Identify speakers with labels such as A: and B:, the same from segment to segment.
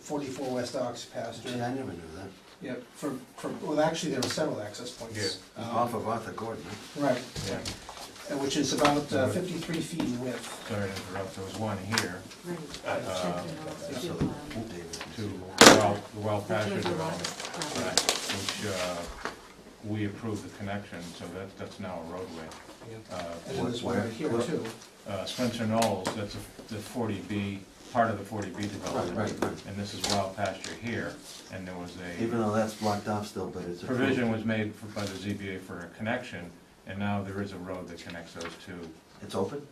A: forty-four West Ox
B: Gee, I
A: pasture.
B: never knew that.
A: Yep, for, for, well, actually, there were several access points.
B: It's
A: Um,
B: Off of Arthur Gordon, huh?
A: Right,
C: Yeah.
A: uh, which is about uh, fifty-three feet in width.
C: Sorry to interrupt, there was one here,
D: Right.
C: uh,
D: Check
B: So,
D: them
B: the-
D: out.
B: David.
C: to well, the well
D: The
C: pasture
D: Jacob
C: development,
D: Roberts property.
C: right, which, uh, we approved the connection, so that, that's now a roadway.
A: And
C: Uh,
A: then there's one right here
B: Where-
A: too.
C: uh, Spencer Knowles, that's a- the forty B, part of the forty B development.
B: Right, right, right.
C: And this is wild pasture here, and there was
B: Even
C: a
B: though that's blocked off still, but it's. approved.
C: provision was made for- by the ZBA for a connection, and now there is a road that connects those two.
B: It's open?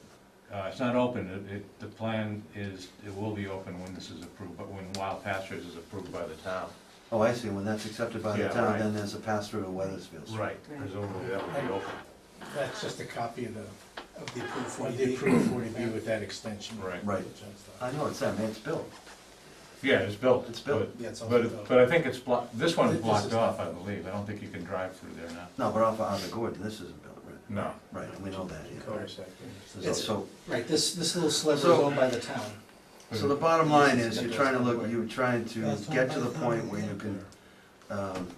C: Uh, it's not open, it, it, the plan is, it will be open when this is approved, but when Wild Pastures is approved by the town.
B: Oh, I see, when that's accepted by the
C: Yeah,
B: town,
C: right.
B: then there's a pass through to Weathersfield. Street.
C: Presumably that will be open.
E: That's just a copy of the,
A: Of the approved
E: of the
A: 40B.
E: approved forty B with that extension.
C: Right.
B: Right.
E: Which I thought-
B: I know, it's that, man, it's built.
C: Yeah, it's built.
B: It's built.
C: but-
A: Yeah, it's all
C: But,
A: built.
C: but I think it's blocked, this one's
A: This is
C: blocked
A: not-
C: off, I believe, I don't think you can drive through there now.
B: No, but off of Arthur Gordon, this isn't built, right?
C: No.
B: Right, we know that, yeah. There's
A: It's-
B: also-
A: Right, this, this little sliver is
B: So-
A: owned by the town.
B: So the bottom line is, you're trying to look, you're trying to get to the point where you can, um,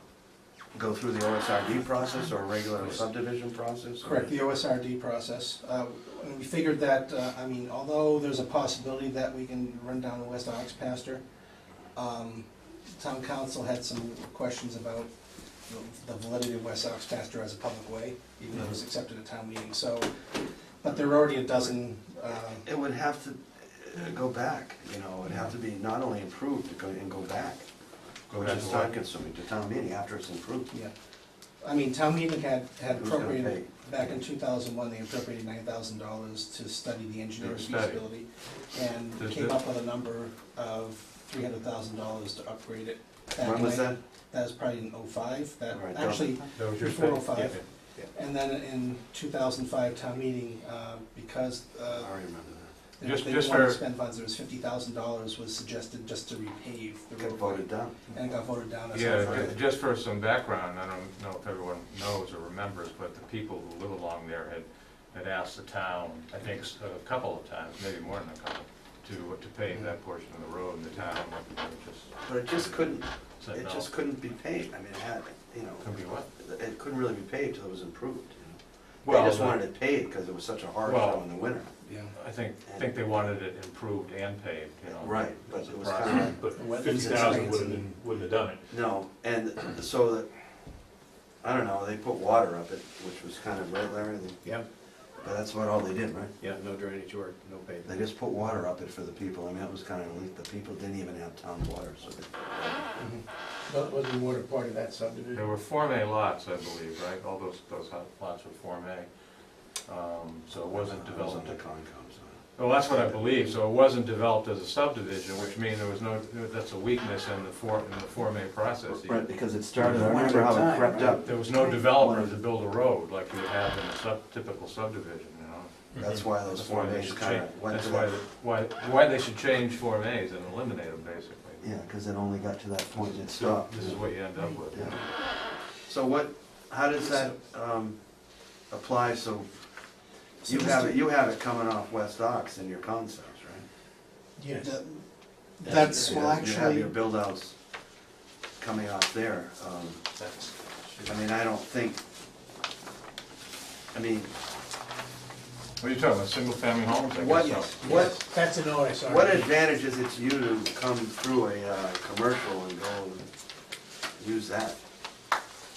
B: go through the OSRD process or a regular subdivision process? or-
A: Correct, the OSRD process. Uh, and We figured that, uh, I mean, although there's a possibility that we can run down the West Ox pasture, um, town council had some questions about the- the validity of West Ox pasture as a public way, even though it was accepted at town meeting, so, but there are already a dozen, uh,
B: It would have to uh, go back, you know, it would have to be not only improved, it go- and go back.
C: Go
B: Which
C: back
B: is
C: to
B: time
C: what?
B: consuming to town meeting after it's improved.
A: yeah. I mean, town meeting had, had
B: Who's gonna
A: appropriated, back in two thousand one, they appropriated nine thousand dollars to study the engineering
C: Yeah, study.
A: feasibility. And
C: Does
A: came
C: the-
A: up with a number of three hundred thousand dollars to upgrade it. back
B: When
A: in
B: was
A: like-
B: that?
A: That was probably in oh-five, that,
B: Right, that was-
A: actually,
C: That was your
A: Before
C: thing.
A: 05.
C: Yeah.
A: and then in two thousand five town meeting, uh, because,
B: I
A: uh,
B: remember
A: they
C: Just-
A: didn't
C: just
A: want to
C: for-
A: spend funds, there was fifty thousand dollars was suggested just to repave
B: that.
A: the
B: Got
A: road.
B: voted down.
A: And it got voted down as
C: Yeah,
A: well.
C: ju- just for some background, I don't know if everyone knows or remembers, but the people who live along there had, had asked the town, I think s- a couple of times, maybe more than a couple, to, to pave
B: Mm-hmm.
C: that portion of the road, and the town just
B: But it just couldn't,
C: said
B: it
C: no.
B: just couldn't be paved, I mean, it had, you know,
C: Could be what?
B: it couldn't really be paved till it was improved. you know. They
C: Well,
B: just wanted it paved because it was such a hard
C: Well-
B: show in the winter.
A: Yeah.
C: I think, think they wanted it improved and paved, you know.
B: Right, but it was
C: Right.
B: kind
F: But
A: The wetlands
F: fifty thousand
A: experience
F: wouldn't, have-
A: and-
F: wouldn't have done it.
B: of, no, and so that, I don't know, they put water up it, which was kind of, right, Larry? They-
E: Yeah,
B: But that's about all they did, right?
E: yeah, no drainage work, no
B: They
E: pavement.
B: just put water up it for the people, I mean, that was kind of, like, the people didn't even have town water, so they-
E: But wasn't water part of that subdivision?
C: There were Form A lots, I believe, right? All those, those hot lots were Form A. Um, So it wasn't
B: I was on
C: developed.
B: the Concom, so.
C: Well, that's what I believe, so it wasn't developed as a subdivision, which means there was no, that's a weakness in the Form, in the Form A process.
B: Right, because it
E: started- I
B: remember how it crept up.
C: There was no developer to build a road like you would have in a sub, typical subdivision, you know?
B: Mhm. That's why those
C: That's why
B: Form
C: they
B: As
C: should
B: kind
C: change,
B: of went
C: that's
B: to
C: why,
B: that.
C: the- why, why they should change Form As and eliminate them, basically.
B: Yeah, because it only got to that point and it
C: So
B: stopped.
C: This is what you end up with.
B: Yeah. So what, how does that um, apply, so you have, it. you have it coming off West Ox in your concepts, right?
E: Yes.
A: The- That's, well,
B: You have
A: actually,
B: your build-outs coming off there. um, I mean, I don't think, I mean,
C: What are you talking about, single-family homes, I guess?
B: what,
C: so.
B: what,
E: That's an OSRD.
B: what advantage is it to you to come through a uh, commercial and go and use that?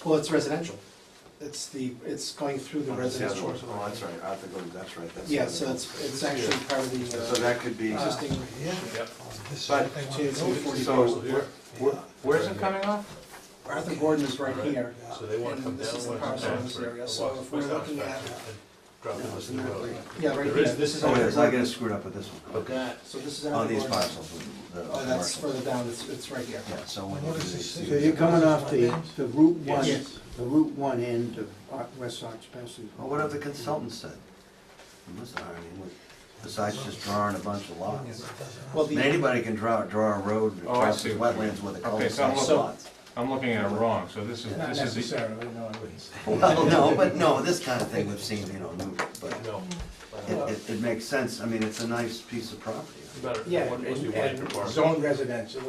A: well, it's residential. It's the, it's going through the
B: Oh, that's the other
A: residential.
B: one. Oh, that's right, Arthur Gordon, that's right. that's the
A: Yeah,
B: other
A: so
B: one.
A: it's, it's actually part of the
B: So
A: uh,
B: that could be,
A: existing.
C: Yep.
B: but, so,
F: Where-
C: Where's it coming off?
A: Arthur Gordon is right here,
F: So they wanna
A: And
F: come down.
A: this is the
F: wanna
A: parcel
F: come
A: in
F: down
A: this
F: for-
A: area,
F: walk
A: so
F: the
A: if we're
F: first
A: looking
F: house
A: at-
F: back and Drop it
B: No,
F: into
B: isn't
F: the
B: that
F: road.
B: weird?
A: yeah, right
F: There is-
A: here.
F: this is
B: oh, it is, I
A: Arthur
B: get it screwed up with this one.
F: Okay.
A: Gordon. So this is
B: On
A: Arthur
B: these
A: Gordon.
B: parcels, the
A: Oh, that's
B: commercial.
A: further down, it's, it's right here.
B: Yeah, so when
G: What
B: you do
G: is
B: these.
G: this?
H: So you're coming off the, the Route One,
A: Yes.
H: the Route One end of O- West Sox Passage.
B: Well, what have the consultants said? They must have hired him, what- besides just drawing a bunch of lots.
A: Well,
B: I mean,
A: the,
B: Anybody can draw, draw a road
C: Oh, I
B: across
C: see.
B: the wetlands with a
C: Okay, so I'm
B: cul-de-sac
C: looking-
B: lot.
C: I'm looking at it wrong, so this is,
E: Not
C: this is, the-
E: necessarily, no, I wouldn't.
B: Well, no, but no, this kind of thing we've seen, you know, new, but it,
F: No.
B: it, it makes sense, I mean, it's a nice piece of property.
F: It's about a-
E: Yeah,
F: one-
E: and
F: must be one acre
E: and
F: parcel.
E: zone residential